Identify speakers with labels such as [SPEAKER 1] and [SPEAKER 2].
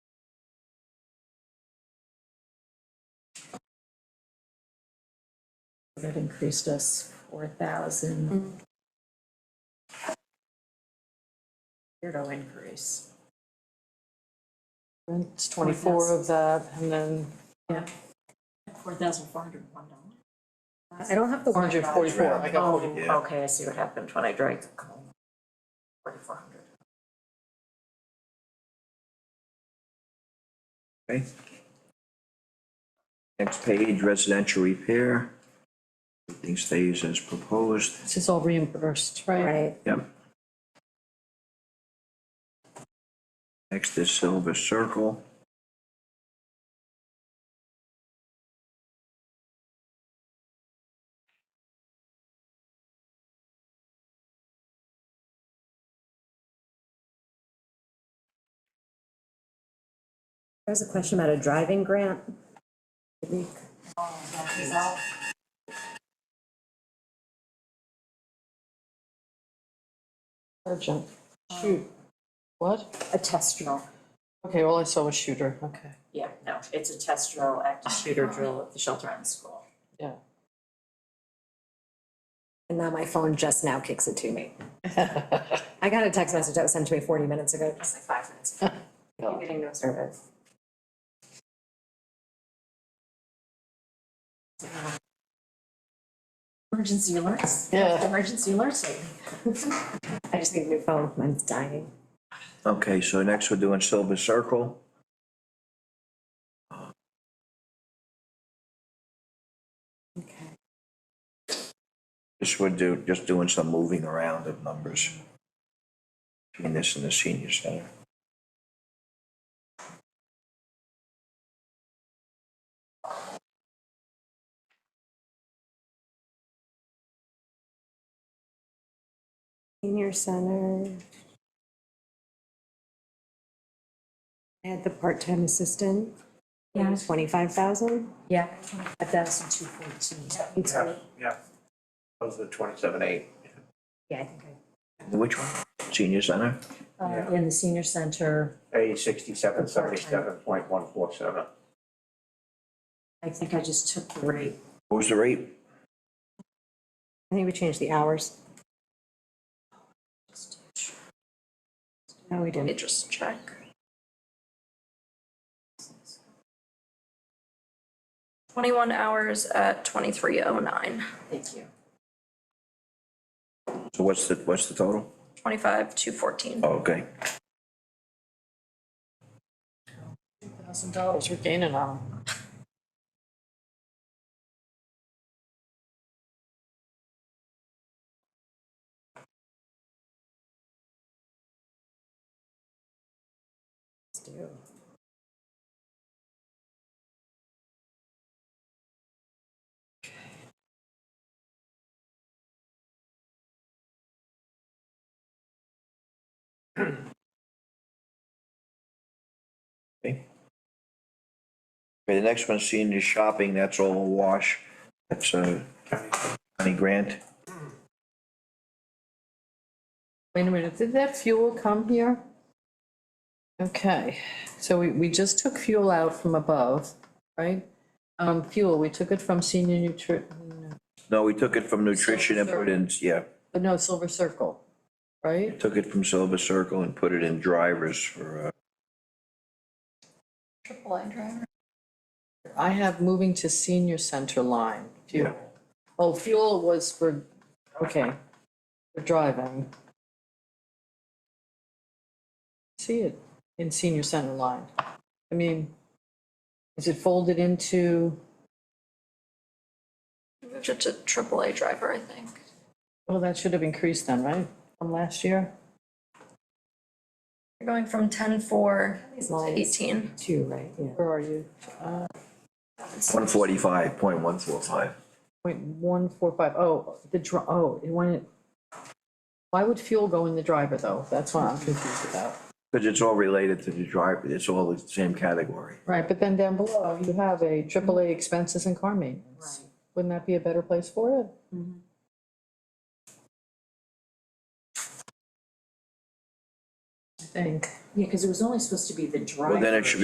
[SPEAKER 1] That increased us four thousand.
[SPEAKER 2] Mm-hmm.
[SPEAKER 1] Zero increase.
[SPEAKER 3] It's twenty-four of that, and then
[SPEAKER 1] Yeah.
[SPEAKER 4] Four thousand four hundred and one dollars.
[SPEAKER 1] I don't have the.
[SPEAKER 3] four hundred forty-four, I got forty.
[SPEAKER 1] Oh, okay, I see what happened when I dragged the column.
[SPEAKER 4] Forty-four hundred.
[SPEAKER 5] Okay. Next page, residential repair. Everything stays as proposed.
[SPEAKER 3] This is all reimbursed, right?
[SPEAKER 1] Right,
[SPEAKER 5] Yep. Next is Silver Circle.
[SPEAKER 1] there was a question about a driving grant.
[SPEAKER 4] Oh, that is all.
[SPEAKER 3] Urgent. Shoot. What?
[SPEAKER 4] A test drill.
[SPEAKER 3] Okay, all I saw was shooter, okay,
[SPEAKER 4] Yeah, no, it's a test drill, active shooter
[SPEAKER 2] Uh-huh.
[SPEAKER 4] drill at the shelter on school.
[SPEAKER 3] yeah.
[SPEAKER 2] And now my phone just now kicks it to me. I got a text message that was sent to me forty minutes ago, just like five minutes. ago.
[SPEAKER 3] Oh.
[SPEAKER 2] I'm getting no service.
[SPEAKER 4] Emergency alerts.
[SPEAKER 3] Yeah.
[SPEAKER 4] Emergency alerts.
[SPEAKER 2] I just need a new phone, mine's dying.
[SPEAKER 5] Okay, so next we're doing Silver Circle. This would do, just doing some moving around of numbers. Between this and the senior center.
[SPEAKER 2] Senior center. I had the part-time assistant. Yeah. Twenty-five thousand.
[SPEAKER 1] Yeah, a thousand two fourteen.
[SPEAKER 2] Yeah.
[SPEAKER 6] Yeah, that was the twenty-seven eight.
[SPEAKER 2] Yeah, I think I.
[SPEAKER 5] Which one? Senior center?
[SPEAKER 1] Uh, in the senior center,
[SPEAKER 6] A sixty-seven seventy-seven point one four seven.
[SPEAKER 4] I think I just took the rate.
[SPEAKER 5] What was the rate?
[SPEAKER 2] I think we changed the hours. No, we didn't.
[SPEAKER 1] just check.
[SPEAKER 7] Twenty-one hours at twenty-three oh nine,
[SPEAKER 4] Thank you.
[SPEAKER 5] So what's the, what's the total?
[SPEAKER 7] twenty-five, two fourteen.
[SPEAKER 5] Oh, Okay.
[SPEAKER 3] Thousand dollars we're gaining on 'em.
[SPEAKER 5] Okay, the next one, senior shopping, that's all a wash. That's uh, a county grant.
[SPEAKER 3] Wait a minute, did that fuel come here? Okay, so we, we just took fuel out from above, right? Um, fuel, we took it from senior nutri,
[SPEAKER 5] No, we took it from nutrition and put it in, yeah,
[SPEAKER 3] but no, Silver Circle, right?
[SPEAKER 5] took it from Silver Circle and put it in drivers for, uh,
[SPEAKER 7] Triple A driver.
[SPEAKER 3] I have moving to senior center line, fuel. Oh, fuel was for, okay, for driving. See it in senior center line. I mean, is it folded into,
[SPEAKER 7] Moved it to triple A driver, I think.
[SPEAKER 3] well, that should have increased then, right, from last year?
[SPEAKER 7] You're going from ten-four
[SPEAKER 2] These
[SPEAKER 7] to
[SPEAKER 2] lines,
[SPEAKER 7] eighteen.
[SPEAKER 2] two, right, yeah.
[SPEAKER 3] Where are you?
[SPEAKER 5] one forty-five, point one four five.
[SPEAKER 3] Point one four five, oh, the dr, oh, it went. Why would fuel go in the driver though? That's what I'm confused about.
[SPEAKER 5] Because it's all related to the driver, it's all the same category.
[SPEAKER 3] Right, but then down below, you have a AAA expenses and car maintenance.
[SPEAKER 4] Right.
[SPEAKER 3] Wouldn't that be a better place for it? I think.
[SPEAKER 4] Yeah, because it was only supposed to be the driver.
[SPEAKER 5] Well, then it should be